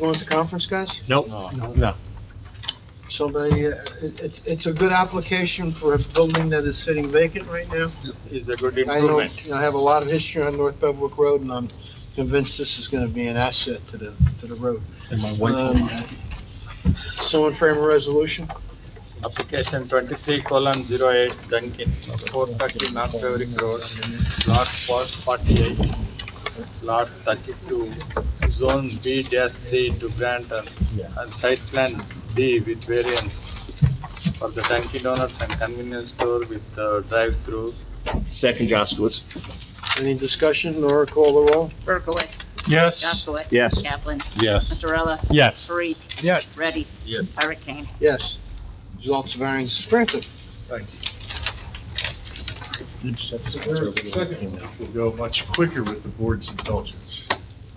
Going to conference, guys? Nope, Oh. no. So they, uh, it- it's, it's a good application for a building that is sitting vacant right now. Is a good I know, I have a lot of history on North Bevwick Road, and I'm convinced this is gonna be an asset to the, to the road. And my Um, Someone frame a resolution? Application twenty-three colon zero eight Dunkin, four thirty North Beverly Road, lot four forty-eight, lot thirty-two, zone B dash three to grant and, and site plan D with variance for the Dunkin Donuts and convenience store with the drive-through. Second Jaskowitz. Any discussion, Nora call the roll? Berkowitz. Yes. Jaskowitz. Yes. Kaplan. Yes. Mazzarella. Yes. Parit. Yes. Ready. Yes. Hurricane. Yes. Results of variance is granted. We'll go much quicker with the board's indulgence.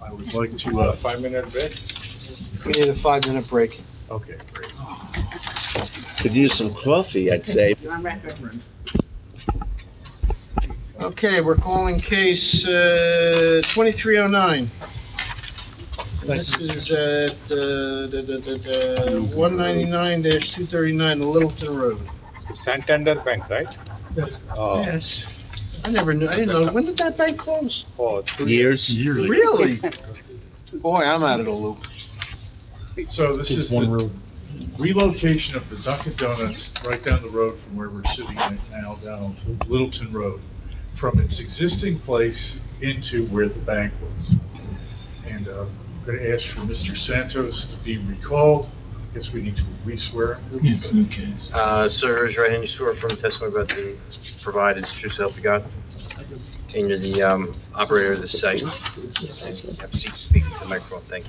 I would like to, uh, Five-minute break? We need a five-minute break. okay, great. Could use some coffee, I'd say. You're on record. Okay, we're calling case, uh, twenty-three oh nine. This is at, uh, da, da, da, da, one ninety-nine two thirty-nine Littleton Road. Santander Bank, right? Oh, Yes. I never knew, I didn't know, when did that bank close? oh, two Years? Yearly. Really? Boy, I'm out of the loop. So this is the relocation of the Dunkin' Donuts right down the road from where we're sitting right now, down on Littleton Road, from its existing place into where the bank was. And uh, I'm going to ask for Mr. Santos to be recalled. I Guess we need to re-swear. Yes, okay. Uh, sir, is your right hand you swear from the testimony about to provide is true self you got? And you're the, um, operator of the site? Have a seat, speak to the microphone, thank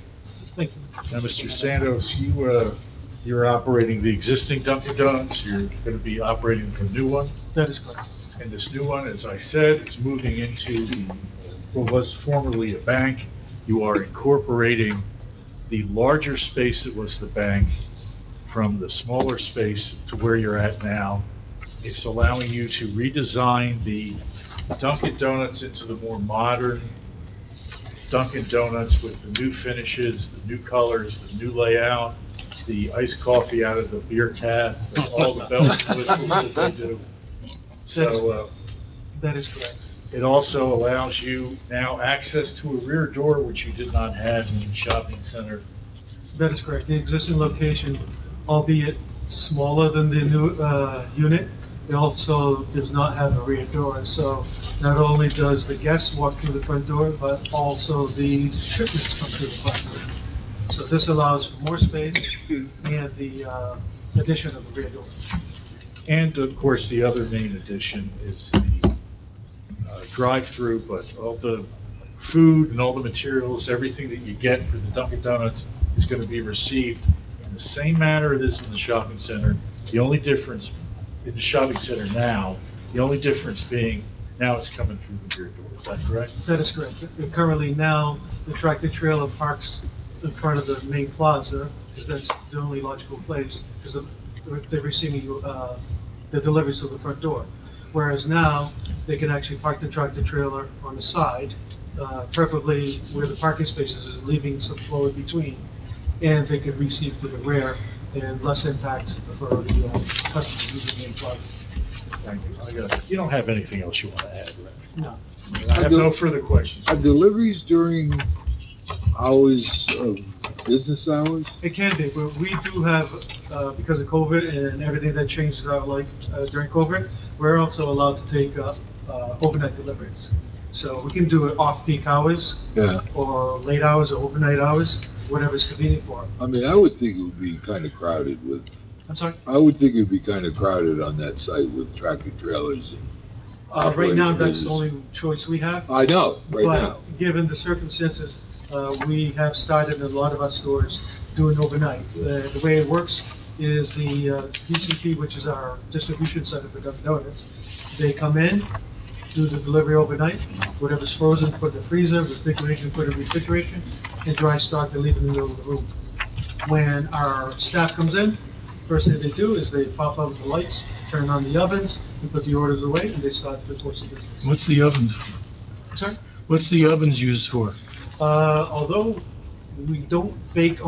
you. Now, Mr. Santos, you, uh, you're operating the existing Dunkin' Donuts, you're gonna be operating the new one, That is correct. and this new one, as I said, is moving into the, what was formerly a bank. You are incorporating the larger space that was the bank from the smaller space to where you're at now. It's allowing you to redesign the Dunkin' Donuts into the more modern Dunkin' Donuts with the new finishes, the new colors, the new layout, the iced coffee out of the beer tap, and all the bells and whistles that they do. So, uh, That is correct. it also allows you now access to a rear door, which you did not have in the shopping center. That is correct. The existing location, albeit smaller than the new uh, unit, it also does not have a rear door. So not only does the guest walk through the front door, but also the shipments come through the front door. So this allows for more space and the uh, addition of a rear door. And of course, the other main addition is the uh, drive-through, but all the food and all the materials, everything that you get for the Dunkin' Donuts is going to be received in the same manner it is in the shopping center. The only difference in the shopping center now, the only difference being now it's coming through the rear door. Is that correct? That is correct. And Currently now, the tractor trailer parks in front of the main plaza, because that's the only logical place, because they're receiving, uh, the deliveries to the front door. Whereas now, they can actually park the tractor trailer on the side, uh, preferably where the parking spaces is, leaving some floor in between. And they could receive through the rear and less impact for the uh, customers using the main plaza. Thank you. I got- You don't have anything else you want to add, right? No. I have no further questions. Are deliveries during hours of business hours? It can be, but we do have, uh, because of COVID and everything that changed in our life uh, during COVID, we're also allowed to take uh, uh, overnight deliveries. So we can do it off-peak hours, Yeah. or late hours, or overnight hours, whatever's convenient for them. I mean, I would think it would be kind of crowded with, I'm sorry? I would think it'd be kind of crowded on that site with tractor trailers. and- Uh, Right now, Operation that's the is- only choice we have. I know, right now. But given the circumstances, uh, we have started a lot of our stores doing overnight. Uh, The way it works is the uh, DCP, which is our distribution center for Dunkin' Donuts, they come in, do the delivery overnight, whatever's frozen, put in the freezer, refrigeration, put in refrigeration, and dry stock, they leave in the middle of the room. When our staff comes in, first thing they do is they pop out the lights, turn on the ovens, and put the orders away, and they start the course of business. What's the ovens, Sorry? what's the ovens used for? Uh, although we don't bake